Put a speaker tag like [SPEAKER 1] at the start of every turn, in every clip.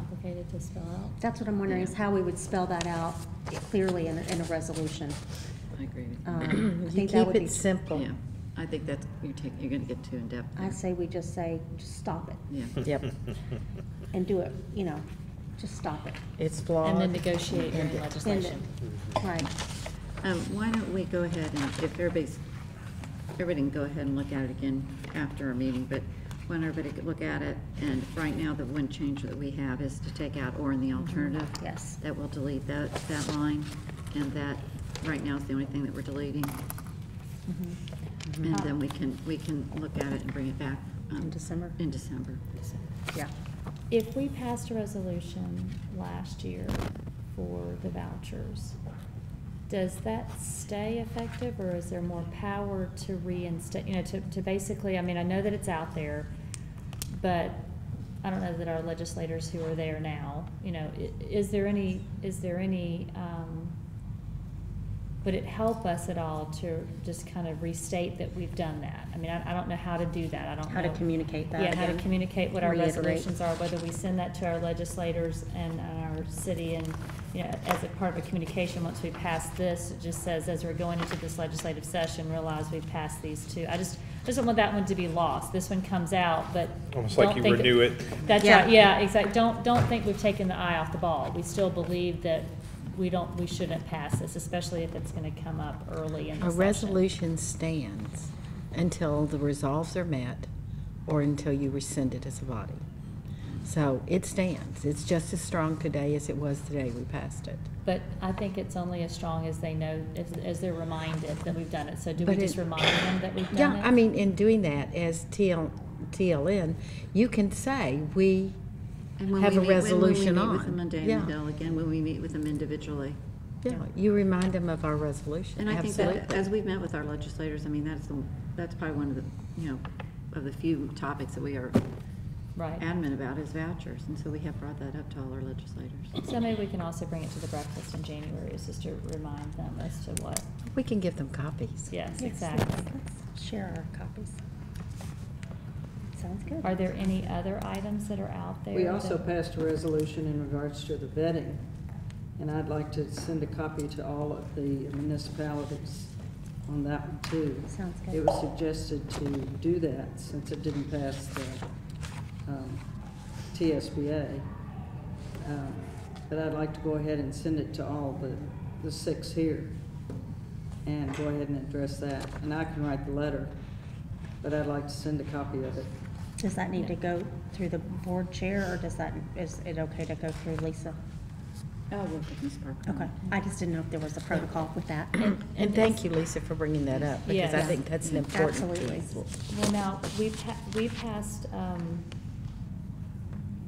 [SPEAKER 1] complicated to spell out.
[SPEAKER 2] That's what I'm wondering, is how we would spell that out clearly in, a- in a resolution.
[SPEAKER 3] I agree with
[SPEAKER 2] Um, I
[SPEAKER 1] You
[SPEAKER 2] think that
[SPEAKER 1] keep
[SPEAKER 2] would be,
[SPEAKER 1] it simple.
[SPEAKER 3] you. Yeah, I think that's, you're taking, you're gonna get too in-depth.
[SPEAKER 2] I
[SPEAKER 3] there.
[SPEAKER 2] say we just say, just stop it,
[SPEAKER 3] Yeah.
[SPEAKER 4] Yep,
[SPEAKER 2] and do it, you know, just stop it,
[SPEAKER 4] it's flawed.
[SPEAKER 1] And then negotiate your own
[SPEAKER 2] end it.
[SPEAKER 1] legislation. Mm-hmm.
[SPEAKER 2] Right,
[SPEAKER 3] Um, why don't we go ahead and, if everybody's, everybody can go ahead and look at it again after our meeting, but why don't everybody could look at it, and right now, the one change that we have is to take out or in the alternative.
[SPEAKER 2] Mm-hmm. yes.
[SPEAKER 3] That will delete that, that line, and that, right now, is the only thing that we're deleting. And then we can, we can look at it and bring it back.
[SPEAKER 2] Mm-hmm.
[SPEAKER 3] um,
[SPEAKER 2] Uh, In December?
[SPEAKER 3] In December.
[SPEAKER 2] Yeah.
[SPEAKER 1] If we passed a resolution last year for the vouchers, does that stay effective or is there more power to reinstate, you know, to, to basically, I mean, I know that it's out there, but I don't know that our legislators who are there now, you know, i- is there any, is there any, um, would it help us at all to just kind of restate that we've done that? I mean, I, I don't know how to do that, I don't know.
[SPEAKER 2] How to communicate that
[SPEAKER 1] Yeah, how to
[SPEAKER 2] again.
[SPEAKER 1] communicate what our
[SPEAKER 2] Reiterate.
[SPEAKER 1] resolutions are, whether we send that to our legislators and our city and, you know, as a part of a communication, once we pass this, it just says, as we're going into this legislative session, realize we've passed these two. I just, just don't want that one to be lost. This one comes out, but.
[SPEAKER 5] Almost like
[SPEAKER 1] don't
[SPEAKER 5] you
[SPEAKER 1] think-
[SPEAKER 5] renew it.
[SPEAKER 1] That's
[SPEAKER 2] Yeah.
[SPEAKER 1] right, yeah, exactly. Don't, don't think we've taken the eye off the ball. We still believe that we don't, we shouldn't pass this, especially if it's gonna come up early in the
[SPEAKER 4] A
[SPEAKER 1] session.
[SPEAKER 4] resolution stands until the resolves are met or until you rescind it as a body. So it stands. It's just as strong today as it was the day we passed it.
[SPEAKER 1] But I think it's only as strong as they know, as, as they're reminded that we've done it. So do we
[SPEAKER 4] But it-
[SPEAKER 1] just remind them that we've
[SPEAKER 4] Yeah,
[SPEAKER 1] done it?
[SPEAKER 4] I mean, in doing that as TL, TLN, you can say, we
[SPEAKER 3] And when
[SPEAKER 4] have
[SPEAKER 3] we
[SPEAKER 4] a
[SPEAKER 3] meet- when we
[SPEAKER 4] resolution
[SPEAKER 3] meet with them
[SPEAKER 4] on.
[SPEAKER 3] on Diamond
[SPEAKER 4] Yeah,
[SPEAKER 3] Hill again, when we meet with them individually.
[SPEAKER 4] yeah, you remind them of our resolution,
[SPEAKER 3] And I think that,
[SPEAKER 4] absolutely.
[SPEAKER 3] as we've met with our legislators, I mean, that's, the that's probably one of the, you know, of the few topics that we are
[SPEAKER 1] Right.
[SPEAKER 3] adamant about is vouchers, and so we have brought that up to all our legislators.
[SPEAKER 1] So maybe we can also bring it to the breakfast in January, is just to remind them as to what,
[SPEAKER 4] We can give them copies.
[SPEAKER 1] yes,
[SPEAKER 2] Yes,
[SPEAKER 1] exactly.
[SPEAKER 2] let's- let's Share our copies. Sounds good.
[SPEAKER 1] Are there any other items that are out there?
[SPEAKER 6] We also
[SPEAKER 1] that-
[SPEAKER 6] passed a resolution in regards to the vetting, and I'd like to send a copy to all of the municipalities on that one too.
[SPEAKER 2] Sounds good.
[SPEAKER 6] It was suggested to do that since it didn't pass the um, TSBA. Um, But I'd like to go ahead and send it to all the, the six here and go ahead and address that. And I can write the letter, but I'd like to send a copy of it.
[SPEAKER 2] Does that need to go through the board chair, or does that, is it okay to go through Lisa?
[SPEAKER 3] Oh, well, Ms. Parker.
[SPEAKER 2] Okay, I just didn't know if there was a protocol with that.
[SPEAKER 4] And thank you, Lisa, for bringing that up, because I
[SPEAKER 1] Yeah.
[SPEAKER 4] think that's an important
[SPEAKER 2] Absolutely.
[SPEAKER 4] piece.
[SPEAKER 1] Well, now, we, pa- we passed, um,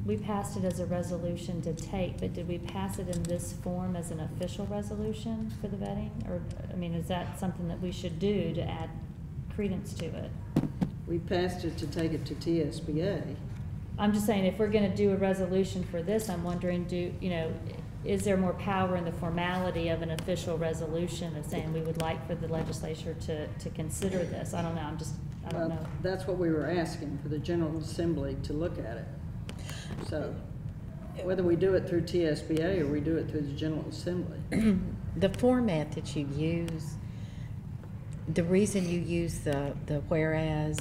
[SPEAKER 1] we passed it as a resolution to take, but did we pass it in this form as an official resolution for the vetting? Or, I mean, is that something that we should do to add credence to it?
[SPEAKER 6] We passed it to take it to TSBA.
[SPEAKER 1] I'm just saying, if we're gonna do a resolution for this, I'm wondering, do, you know, is there more power in the formality of an official resolution of saying we would like for the legislature to, to consider this? I don't know, I'm just, I don't
[SPEAKER 6] Well,
[SPEAKER 1] know.
[SPEAKER 6] Uh, That's what we were asking, for the General Assembly to look at it. So whether we do it through TSBA or we do it through the General Assembly,
[SPEAKER 4] The format that you use, the reason you use the, the whereas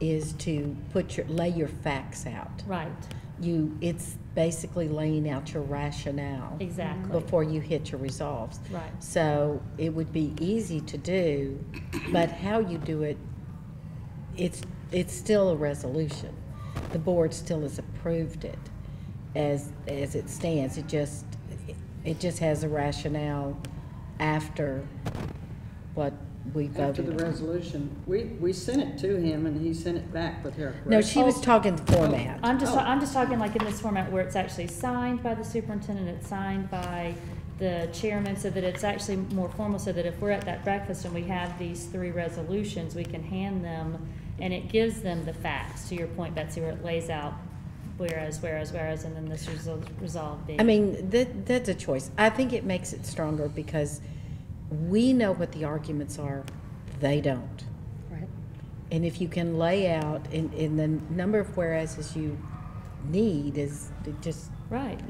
[SPEAKER 4] is to put your, lay your facts out.
[SPEAKER 1] Right,
[SPEAKER 4] You, it's basically laying out your rationale
[SPEAKER 1] exactly,
[SPEAKER 4] before you hit your resolves.
[SPEAKER 1] right.
[SPEAKER 4] So it would be easy to do, but how you do it, it's, it's still a resolution. The board still has approved it as, as it stands. It just, it just has a rationale after what we
[SPEAKER 6] after
[SPEAKER 4] voted
[SPEAKER 6] the
[SPEAKER 4] on.
[SPEAKER 6] resolution, we, we sent it to him and he sent it back with her
[SPEAKER 4] No,
[SPEAKER 6] correction.
[SPEAKER 4] she was talking the format.
[SPEAKER 1] I'm just, I'm just talking like in this format where it's actually signed by the superintendent, it's signed by the chairman, so that it's actually more formal, so that if we're at that breakfast and we have these three resolutions, we can hand them, and it gives them the facts, to your point, Betsy, where it lays out whereas, whereas, whereas, and then this resol- resolve being.
[SPEAKER 4] I mean, that, that's a choice. I think it makes it stronger because we know what the arguments are, they don't.
[SPEAKER 2] Right.
[SPEAKER 4] And if you can lay out in, in the number of whereases you need is it just
[SPEAKER 1] Right.